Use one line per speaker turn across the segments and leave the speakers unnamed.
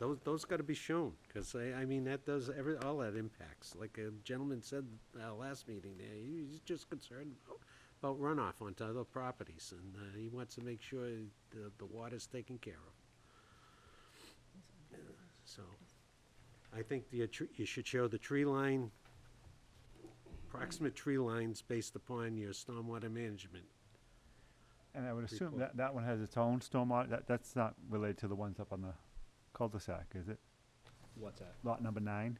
Those, those gotta be shown, because I, I mean, that does, every, all that impacts. Like a gentleman said, uh, last meeting, there, he- he's just concerned about- about runoff onto other properties, and, uh, he wants to make sure the, the water's taken care of. So, I think the, uh, tr- you should show the tree line, approximate tree lines based upon your stormwater management.
And I would assume
Report.
that, that one has its own stormwater, that, that's not related to the ones up on the cul-de-sac, is it?
What's that?
Lot number nine?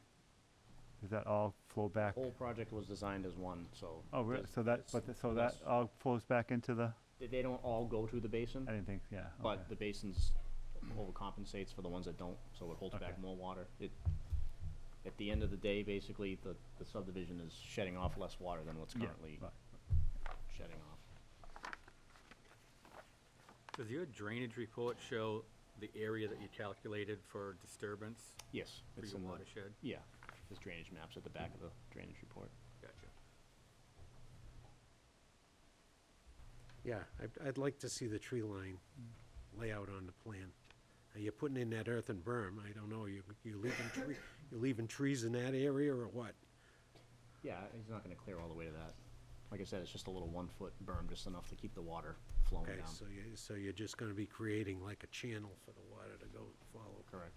Does that all flow back?
Whole project was designed as one, so.
Oh, really?
there's-
So that,
it's-
but, th- so that
yes.
all flows back into the,
They- They don't all go to the basin,
I didn't think, yeah. okay.
but the basin's overcompensates for the ones that don't, so it holds back
Okay.
more water. It, at the end of the day, basically, the, the subdivision is shedding off less water than what's
Yeah, uh,
currently
right.
shedding off.
Does your drainage report show the area that you calculated for disturbance
Yes.
for
it's
your
in the-
watershed?
Yeah, there's drainage maps at the back of the drainage report.
Gotcha.
Yeah, I'd, I'd like to see the tree line layout on the plan. Uh, You're putting in that earthen berm, I don't know, you, you leaving tree, you leaving trees in that area or what?
Yeah, he's not gonna clear all the way to that. Like I said, it's just a little one-foot berm, just enough to keep the water flowing
Okay,
down.
so you, so you're just gonna be creating like a channel for the water to go follow.
Correct.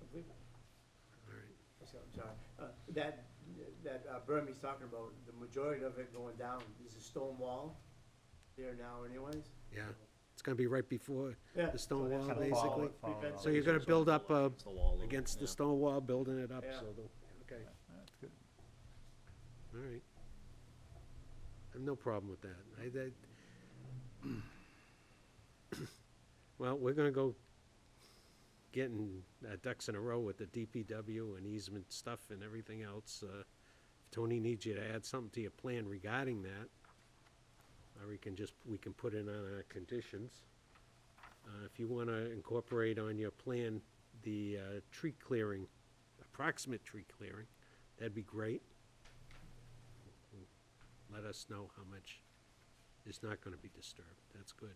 All right,
So, John, uh, that, that uh, berm he's talking about, the majority of it going down is a stone wall there now anyways.
yeah, it's gonna be right before
Yeah,
the stone
so that's
wall,
gonna follow-
basically.
follow
prevent
up.
So you're gonna
Sort of
build up,
follow
uh,
against the wall a little,
against the
yeah.
stone wall, building it up,
Yeah.
so, the- okay,
That's good.
all right. I have no problem with that, I, that. Well, we're gonna go getting uh, ducks in a row with the DPW and easement stuff and everything else. uh, If Tony needs you to add something to your plan regarding that, or we can just, we can put in on our conditions. Uh, If you want to incorporate on your plan the uh, tree clearing, approximate tree clearing, that'd be great. Let us know how much is not going to be disturbed. That's good.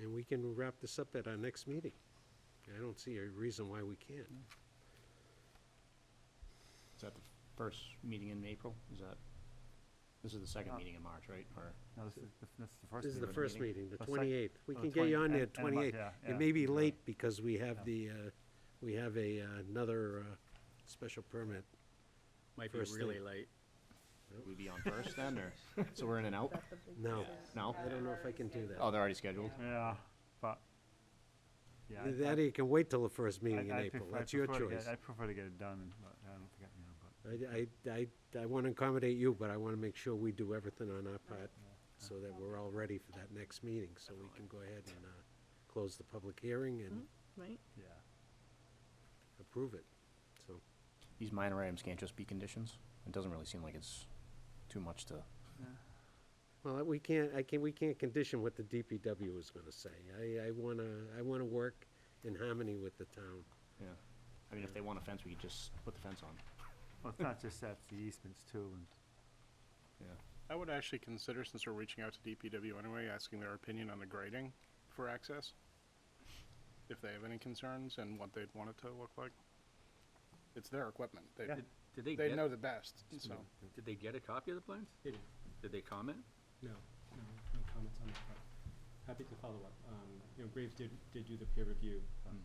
And we can wrap this up at our next meeting. I don't see a reason why we can't.
Is that the first meeting in April? Is that, this is the second
Uh,
meeting in March, right? Or,
No, this is, the- this is the first.
This is the
meeting.
first meeting, the
Oh, sec-
twenty-eighth. We
oh,
can get you
20
on there
end- end of month,
twenty-eighth.
yeah,
It
yeah,
may be
you're right.
late because we have
Yeah.
the, uh, we have a, uh, another uh, special permit.
Might be
First thing.
really late.
we be on first then, or, so we're in and out?
No,
No?
I don't know if I can do
Oh,
that.
they're already scheduled?
Yeah, but, yeah. I-
That
I-
you can wait till the first meeting in
I- I
April.
pref- I
That's your
prefer to get-
choice.
I prefer to get it done, but I don't think, I- you know, but.
I, I, I, I want to accommodate you, but I want to make sure we do everything on our part so that we're all ready for that next meeting, so we can go ahead and, uh, close the public hearing and
Mm-hmm.
Right?
Yeah.
approve it, so.
These minor items can't just be conditions? It doesn't really seem like it's too much to,
Well, we can't, I can, we can't condition what the DPW is gonna say. I, I wanna, I wanna work in harmony with the town.
yeah. I mean, if they want a fence, we could just put the fence on.
Well, it's not just that, it's the easements too, and
Yeah.
I would actually consider, since we're reaching out to DPW anyway, asking their opinion on the grading for access. If they have any concerns and what they'd want it to look like. It's their equipment. They,
Yeah.
Did they
they
get,
know the best, so.
did they get a copy of the plans?
They did.
Did they comment?
No, no, no comments on that front. Happy to follow up. Um, you know, Graves did, did do the peer review, um,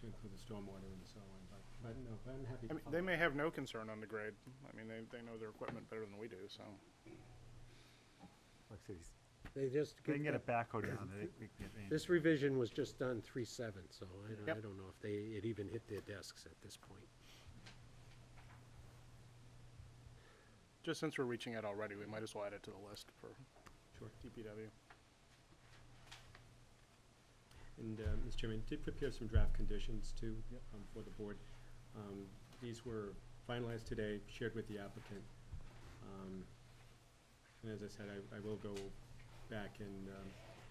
to include the stormwater and so on, but, but no, but I'm happy
I
to
mean,
follow up.
they may have no concern on the grade. I mean, they, they know their equipment better than we do, so.
like I said, he's-
They just,
they can get a
get-
backhoe down, they, they can get. any-
this revision was just done three-seven, so I, don't- I
Yep.
don't know if they, it even hit their desks at this point.
Just since we're reaching out already, we might as well add it to the list for
Sure.
DPW.
And, uh, Mr. Chairman, did prepare some draft conditions too, um, for the board. Um, these were finalized today, shared with the applicant. Um, and as I said, I, I will go back and, um,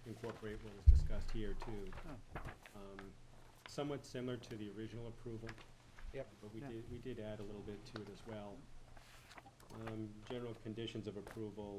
incorporate what was discussed here too. Um, somewhat similar to the original approval.
Yep.
But we
Yeah.
did, we did add a little bit to it as well. um, general conditions of approval